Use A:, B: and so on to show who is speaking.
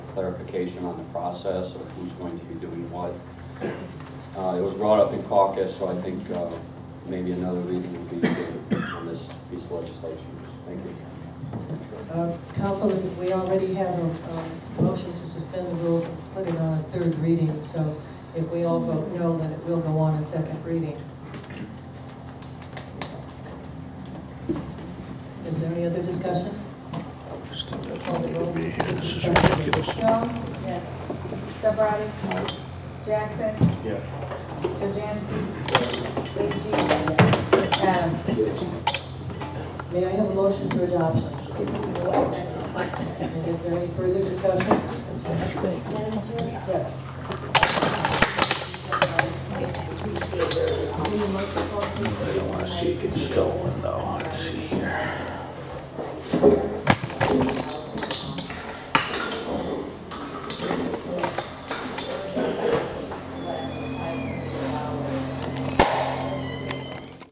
A: clarification on the process of who's going to be doing what. Uh, It was brought up in caucus, so I think uh, maybe another reading would be good on this piece of legislation. Thank you.
B: Uh, Councilman, we already have a um, motion to suspend the rules and put it on a third reading, so if we all vote no, then it will go on a second reading. Is there any other discussion?
C: Jones? Yes. Surratt?
A: Aye.
C: Jackson?
D: Yes.
C: Jazinski? Leeang? Adams?
B: May I have a motion for adoption? And is there any further discussion? Yes.
E: I don't wanna see it get stolen, though.